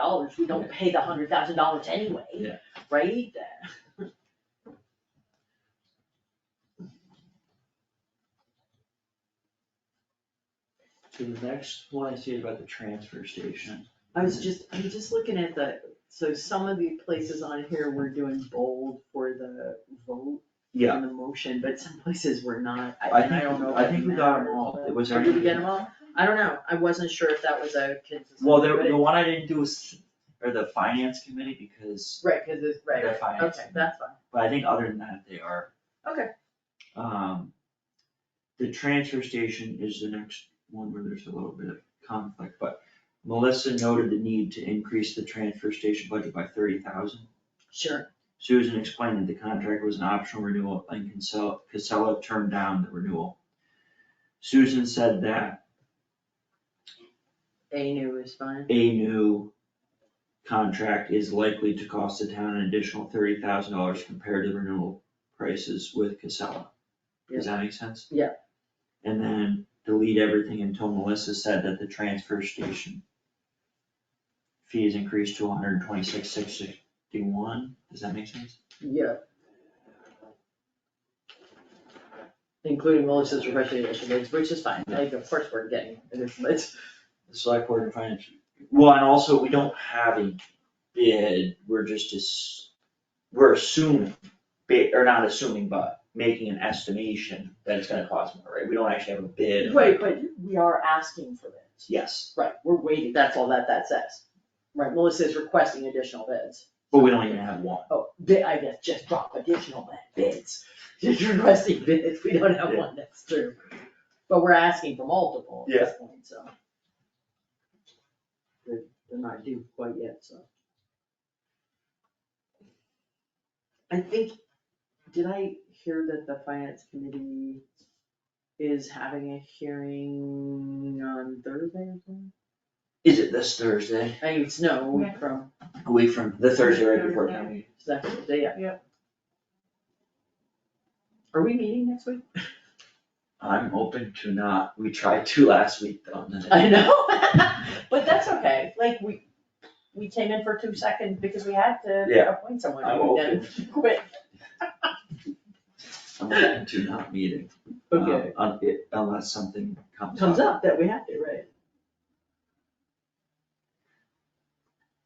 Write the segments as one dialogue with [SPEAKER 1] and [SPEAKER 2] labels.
[SPEAKER 1] dollars, we don't pay the hundred thousand dollars anyway.
[SPEAKER 2] Yeah.
[SPEAKER 1] Right?
[SPEAKER 2] So the next one I see is about the transfer station.
[SPEAKER 3] I was just, I'm just looking at the, so some of the places on here we're doing bold for the vote and the motion, but some places we're not, I,
[SPEAKER 2] I
[SPEAKER 3] and I don't know. if
[SPEAKER 2] think, I
[SPEAKER 3] it
[SPEAKER 2] think we got them
[SPEAKER 3] matters,
[SPEAKER 2] all,
[SPEAKER 3] but-
[SPEAKER 2] it was
[SPEAKER 3] Or
[SPEAKER 2] everything.
[SPEAKER 3] Did we get them all? I don't know, I wasn't sure if that was a consistent.
[SPEAKER 2] Well, the,
[SPEAKER 3] but it-
[SPEAKER 2] the one I didn't do was, or the finance committee, because,
[SPEAKER 3] Right, cause it's, right,
[SPEAKER 2] The
[SPEAKER 3] right,
[SPEAKER 2] finance.
[SPEAKER 3] okay, that's fine.
[SPEAKER 2] but I think other than that, they are.
[SPEAKER 3] Okay.
[SPEAKER 2] Um, the transfer station is the next one where there's a little bit of conflict, but Melissa noted the need to increase the transfer station budget by thirty thousand.
[SPEAKER 3] Sure.
[SPEAKER 2] Susan explained that the contract was an optional renewal and Casella, Casella turned down the renewal. Susan said that
[SPEAKER 3] A new is fine.
[SPEAKER 2] a new contract is likely to cost the town an additional thirty thousand dollars compared to the renewal prices with Casella. Does that make sense?
[SPEAKER 3] Yeah.
[SPEAKER 2] And then delete everything until Melissa said that the transfer station fee is increased to 126,661. Does that make sense?
[SPEAKER 3] Yeah. Including Melissa's refreshing initiatives, which is fine, like, of course we're getting, it's, it's,
[SPEAKER 2] The select board and finance. Well, and also, we don't have a bid, we're just, ass- we're assuming, ba- or not assuming, but making an estimation that it's gonna cost more, right? We don't actually have a bid.
[SPEAKER 1] Right, but we are asking for this.
[SPEAKER 2] Yes,
[SPEAKER 3] right, we're waiting, that's all that that says. Right, Melissa's requesting additional bids.
[SPEAKER 2] but we don't even have one.
[SPEAKER 3] Oh, bid, I guess, just drop additional bids, just requesting bids, we don't have one, that's true. But we're asking for multiple at this point, so. They're, they're not due quite yet, so. I think, did I hear that the finance committee is having a hearing on Thursday or something?
[SPEAKER 2] Is it this Thursday,
[SPEAKER 3] I think it's no, a week from
[SPEAKER 2] a week from the Thursday right before town meeting?
[SPEAKER 3] Second, day, yeah. Are we meeting next week?
[SPEAKER 2] I'm open to not, we tried to last week though, and then-
[SPEAKER 3] I know.
[SPEAKER 1] But that's okay, like, we, we came in for two seconds because we had to
[SPEAKER 2] Yeah.
[SPEAKER 1] appoint someone.
[SPEAKER 2] I'm
[SPEAKER 1] and then Quit.
[SPEAKER 2] I'm open to not meeting. um, un- it- Unless something comes up.
[SPEAKER 3] Comes up that we have to, right?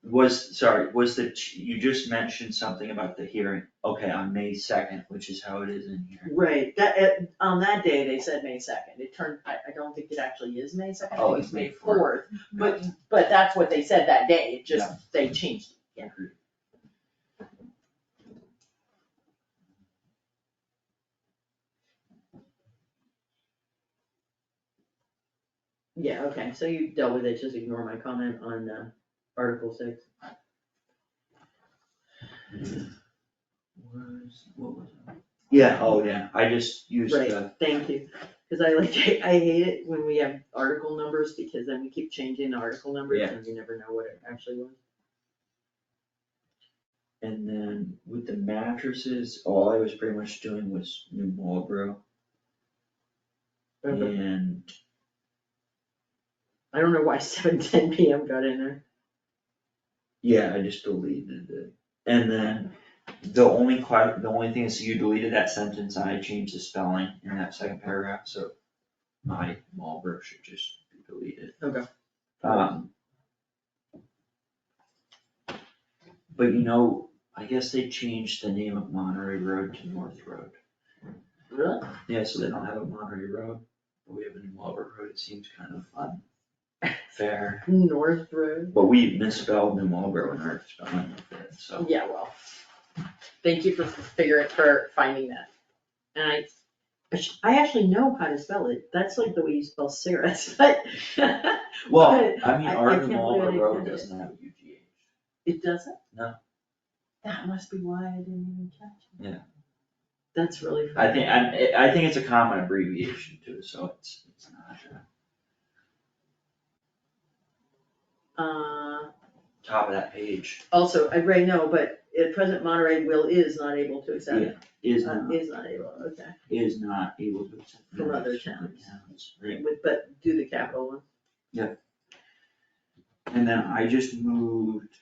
[SPEAKER 2] Was, sorry, was the, ch- you just mentioned something about the hearing, okay, on May second, which is how it is in here.
[SPEAKER 3] Right, that, it- on that day, they said May second, it turned, I, I don't think it actually is May second, I
[SPEAKER 2] Oh,
[SPEAKER 3] think
[SPEAKER 2] it's
[SPEAKER 3] it's May
[SPEAKER 2] May 4th.
[SPEAKER 3] fourth.
[SPEAKER 1] Mm-hmm.
[SPEAKER 3] But, but that's what they said that day, it just, they changed it, yeah. Yeah, okay, so you dealt with it, just ignore my comment on, uh, Article six.
[SPEAKER 2] Was, what was it? Yeah, oh, yeah, I just used
[SPEAKER 3] Right,
[SPEAKER 2] the,
[SPEAKER 3] thank you, cause I like, I hate it when we have article numbers, because then we keep changing the article numbers
[SPEAKER 2] Yeah.
[SPEAKER 3] and you never know what it actually was.
[SPEAKER 2] and then with the mattresses, all I was pretty much doing was New Marlboro
[SPEAKER 3] Okay.
[SPEAKER 2] and
[SPEAKER 3] I don't know why seven ten PM got in there.
[SPEAKER 2] Yeah, I just deleted it. And then the only que- the only thing is you deleted that sentence, I changed the spelling in that second paragraph, so my Marlboro should just be deleted.
[SPEAKER 3] Okay.
[SPEAKER 2] Um. But you know, I guess they changed the name of Monterey Road to North Road.
[SPEAKER 3] Really?
[SPEAKER 2] Yeah, so they don't have a Monterey Road, but we have a new Marlboro Road, it seems kind of unfair.
[SPEAKER 3] North Road?
[SPEAKER 2] But we misspelled New Marlboro in our spelling of it, so.
[SPEAKER 3] Yeah, well, thank you for figuring, for finding that. And I, I sh- I actually know how to spell it, that's like the way you spell Sarah, but
[SPEAKER 2] Well, I mean,
[SPEAKER 3] I- I
[SPEAKER 2] Arden
[SPEAKER 3] can't
[SPEAKER 2] Marlboro
[SPEAKER 3] believe I
[SPEAKER 2] Road
[SPEAKER 3] did it.
[SPEAKER 2] doesn't have a UGH.
[SPEAKER 3] it doesn't?
[SPEAKER 2] No.
[SPEAKER 3] That must be why I didn't even catch it.
[SPEAKER 2] Yeah.
[SPEAKER 3] That's really funny.
[SPEAKER 2] I think, I, I think it's a common abbreviation too, so it's, it's not a
[SPEAKER 3] Uh,
[SPEAKER 2] top of that page.
[SPEAKER 3] also, I, right, no, but at present Monterey will is not able to accept,
[SPEAKER 2] Yeah, Is
[SPEAKER 3] uh,
[SPEAKER 2] not,
[SPEAKER 3] is not able, okay.
[SPEAKER 2] is not able to accept.
[SPEAKER 3] From other
[SPEAKER 2] donations
[SPEAKER 3] towns.
[SPEAKER 2] towns, right.
[SPEAKER 3] With, but do the capital one.
[SPEAKER 2] Yeah. And then I just moved